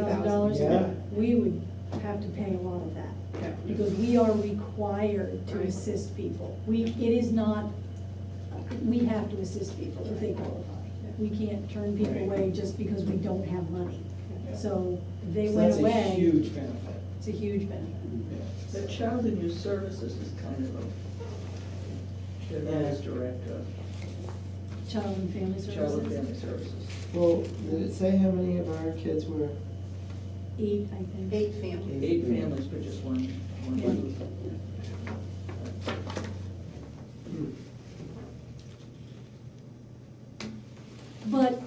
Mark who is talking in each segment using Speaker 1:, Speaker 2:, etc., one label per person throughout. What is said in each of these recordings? Speaker 1: thousand dollars,
Speaker 2: Yeah.
Speaker 1: we would have to pay a lot of that. Because we are required to assist people. We, it is not, we have to assist people if they qualify. We can't turn people
Speaker 2: Right.
Speaker 1: away just because we don't have money.
Speaker 2: Yeah.
Speaker 1: So they
Speaker 2: So
Speaker 1: went
Speaker 2: That's a
Speaker 1: away,
Speaker 2: huge benefit.
Speaker 1: it's a huge benefit.
Speaker 3: The child and youth services is kind of a, the man's director,
Speaker 1: Child and Family
Speaker 3: uh, child and family
Speaker 1: Services,
Speaker 3: services.
Speaker 2: Well, did it say how many of our kids were?
Speaker 1: eight, I think.
Speaker 4: Eight families.
Speaker 3: Eight families, but just one,
Speaker 1: Mm-hmm.
Speaker 3: one
Speaker 1: Yeah.
Speaker 3: youth.
Speaker 2: Hmm.
Speaker 1: But,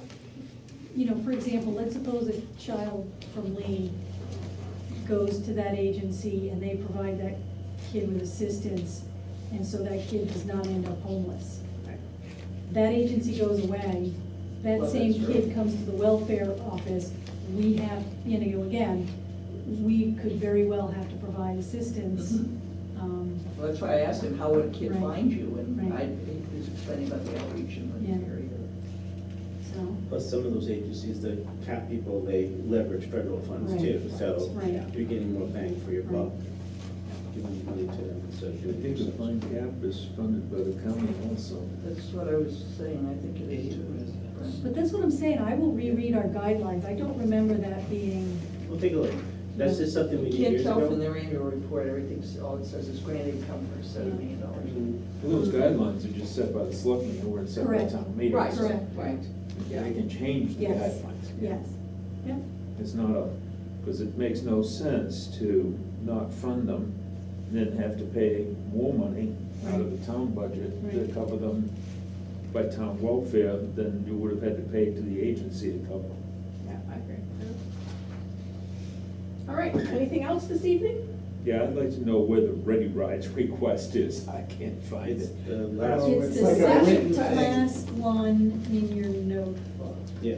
Speaker 1: you know, for example, let's suppose a child from Lee goes to that agency and they provide that kid with assistance, and so that kid does not end up homeless. That agency goes away, that
Speaker 3: Well,
Speaker 1: same
Speaker 3: that's
Speaker 1: kid
Speaker 3: true.
Speaker 1: comes to the welfare office, we have, you know, again, we could very well have to provide assistance.
Speaker 3: Mhm.
Speaker 1: um,
Speaker 3: Well, that's why I asked him, how would a kid
Speaker 1: Right.
Speaker 3: find you? And I,
Speaker 1: Right.
Speaker 3: he was explaining about the outreach in
Speaker 1: Yeah.
Speaker 3: the area.
Speaker 1: So,
Speaker 5: Plus, some of those agencies, the cap people, they leverage federal funds too,
Speaker 1: Right.
Speaker 5: so
Speaker 1: Right.
Speaker 5: you're getting more bang for your
Speaker 1: Right.
Speaker 5: buck. Giving money to them, so
Speaker 6: I think the
Speaker 5: doing
Speaker 6: fund cap is funded by the county also.
Speaker 3: That's what I was saying, I think it is
Speaker 2: Eight residents.
Speaker 3: too.
Speaker 1: but that's what I'm saying, I will reread our guidelines, I don't remember that being
Speaker 5: We'll take a look. That's just something we
Speaker 3: You
Speaker 5: did
Speaker 3: can't
Speaker 5: years
Speaker 3: tell from
Speaker 5: ago.
Speaker 3: their annual report, everything's, all it says is grant income for seven million dollars.
Speaker 6: And those guidelines are just set by the selectmen, they weren't set by
Speaker 1: Correct.
Speaker 6: town meeting.
Speaker 3: Right,
Speaker 6: so
Speaker 1: Correct.
Speaker 3: right.
Speaker 6: They can change the
Speaker 1: Yes.
Speaker 6: guidelines.
Speaker 1: Yes, yep,
Speaker 6: It's not a, because it makes no sense to not fund them, then have to pay more money out of the town budget
Speaker 1: Right.
Speaker 6: to cover them by town welfare than you would have had to pay to the agency to cover. them.
Speaker 4: Yeah, I agree. All right, anything else this evening?
Speaker 6: Yeah, I'd like to know where the Ready Rides request is, I can't find
Speaker 5: It's
Speaker 6: it.
Speaker 5: the last,
Speaker 2: Oh,
Speaker 1: it's
Speaker 2: it's
Speaker 1: the
Speaker 2: like a
Speaker 1: second
Speaker 2: written
Speaker 1: to
Speaker 2: thing.
Speaker 1: last one in your notebook.
Speaker 5: yeah.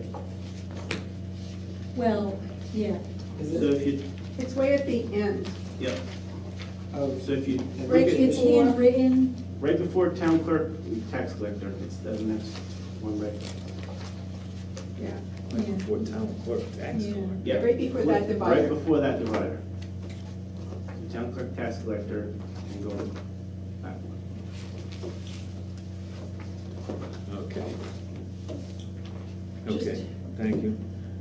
Speaker 1: Well, yeah,
Speaker 2: Is
Speaker 5: So
Speaker 2: it?
Speaker 5: if you,
Speaker 4: It's way at the end.
Speaker 5: yeah,
Speaker 2: Oh,
Speaker 5: so if you,
Speaker 4: Right,
Speaker 5: look at-
Speaker 1: it's handwritten,
Speaker 5: right before town clerk, and tax collector, it's the next one, right?
Speaker 4: Yeah.
Speaker 6: Like before town clerk, tax
Speaker 1: Yeah.
Speaker 6: collector.
Speaker 5: Yeah.
Speaker 4: Right before that
Speaker 5: Right
Speaker 4: divider.
Speaker 5: before that divider. Town clerk, tax collector, and go back one.
Speaker 6: Okay.
Speaker 3: Just-
Speaker 6: Okay, thank you.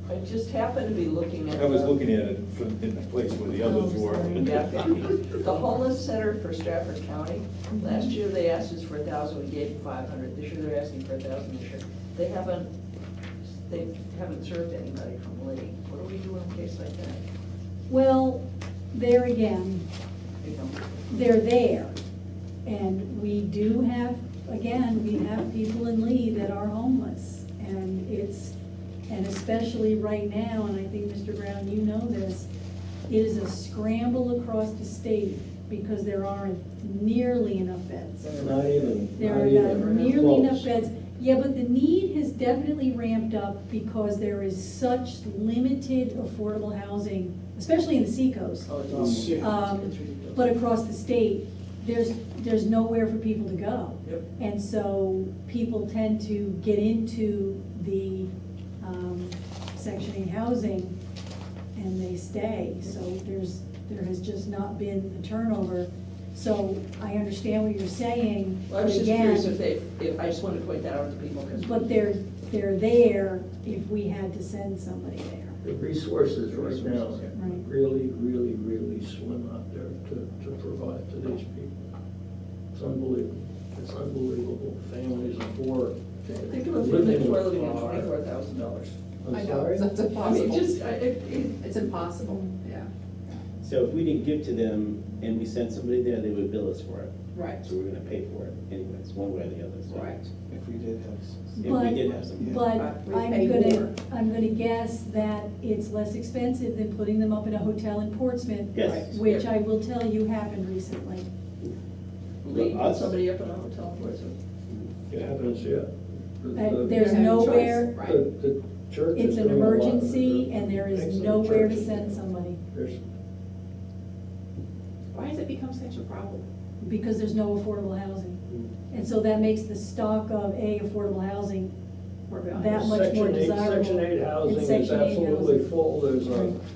Speaker 3: I just happened to be looking at.
Speaker 6: I was
Speaker 3: the-
Speaker 6: looking at it from, in the place where the
Speaker 1: Oh,
Speaker 6: others were.
Speaker 1: sorry.
Speaker 3: Yeah, okay. The homeless center for Stratford County, last year they asked us for a thousand, we gave five hundred, this year they're asking for a thousand this year. They haven't, they haven't served anybody from Lee, what do we do in a case like that?
Speaker 1: well, there again,
Speaker 3: You know,
Speaker 1: they're there. And we do have, again, we have people in Lee that are homeless. And it's, and especially right now, and I think, Mr. Brown, you know this, it is a scramble across the state because there aren't nearly enough beds.
Speaker 2: Not even,
Speaker 1: There are
Speaker 2: not
Speaker 1: not
Speaker 2: even.
Speaker 1: nearly enough
Speaker 2: close.
Speaker 1: beds. Yeah, but the need has definitely ramped up because there is such limited affordable housing, especially in the seacoast.
Speaker 3: Oh, it's
Speaker 2: Oh, shit.
Speaker 1: Um,
Speaker 3: It's ridiculous.
Speaker 1: But across the state, there's, there's nowhere for people to go.
Speaker 3: Yep.
Speaker 1: And so people tend to get into the um, Section 8 housing and they stay. So there's, there has just not been the turnover. So I understand what you're saying.
Speaker 3: Well, I was
Speaker 1: but
Speaker 3: just curious
Speaker 1: again-
Speaker 3: if they, if, I just wanted to point that out to people, because.
Speaker 1: but they're, they're there if we had to send somebody there.
Speaker 7: The resources right now
Speaker 3: Resources,
Speaker 1: yeah. Right.
Speaker 7: really, really, really slim out there to, to provide to these people. It's unbelievable, it's unbelievable, families of four.
Speaker 3: Think of a family who are living on
Speaker 7: with car.
Speaker 3: twenty-four thousand dollars.
Speaker 7: I'm
Speaker 4: I know,
Speaker 7: sorry?
Speaker 4: it's
Speaker 3: I mean,
Speaker 4: impossible.
Speaker 3: just, I, it, it,
Speaker 4: It's impossible, yeah,
Speaker 5: So if we didn't give to them and we sent somebody there, they would bill us for it.
Speaker 4: right.
Speaker 5: So we're gonna pay for it anyways, one way or the other, so.
Speaker 4: Right.
Speaker 2: If we did have. s-
Speaker 5: If we did have some.
Speaker 1: But
Speaker 4: Uh, We
Speaker 1: I'm
Speaker 4: pay
Speaker 1: gonna,
Speaker 4: more.
Speaker 1: I'm gonna guess that it's less expensive than putting them up in a hotel in Portsmouth.
Speaker 5: Yes.
Speaker 1: Which I will tell you happened recently.
Speaker 3: Lee,
Speaker 5: Well, us-
Speaker 3: somebody up in a hotel for it.
Speaker 7: It happens, yeah. The-
Speaker 1: Uh,
Speaker 7: the-
Speaker 1: There's
Speaker 4: You have no choice.
Speaker 1: nowhere,
Speaker 7: the-
Speaker 4: Right.
Speaker 7: The church is
Speaker 1: it's an
Speaker 7: doing a lot of it.
Speaker 1: emergency and there is
Speaker 7: Excellent
Speaker 1: nowhere to
Speaker 7: churches.
Speaker 1: send somebody
Speaker 7: There's-
Speaker 4: Why has it become such a problem?
Speaker 1: because there's no affordable housing. And so that makes the stock of A, affordable housing
Speaker 4: we're behind.
Speaker 1: That much more
Speaker 7: Section eight-
Speaker 1: desirable.
Speaker 7: Section eight housing
Speaker 1: It's
Speaker 7: is
Speaker 1: Section eight housing.
Speaker 7: absolutely full, there's a.
Speaker 1: Right.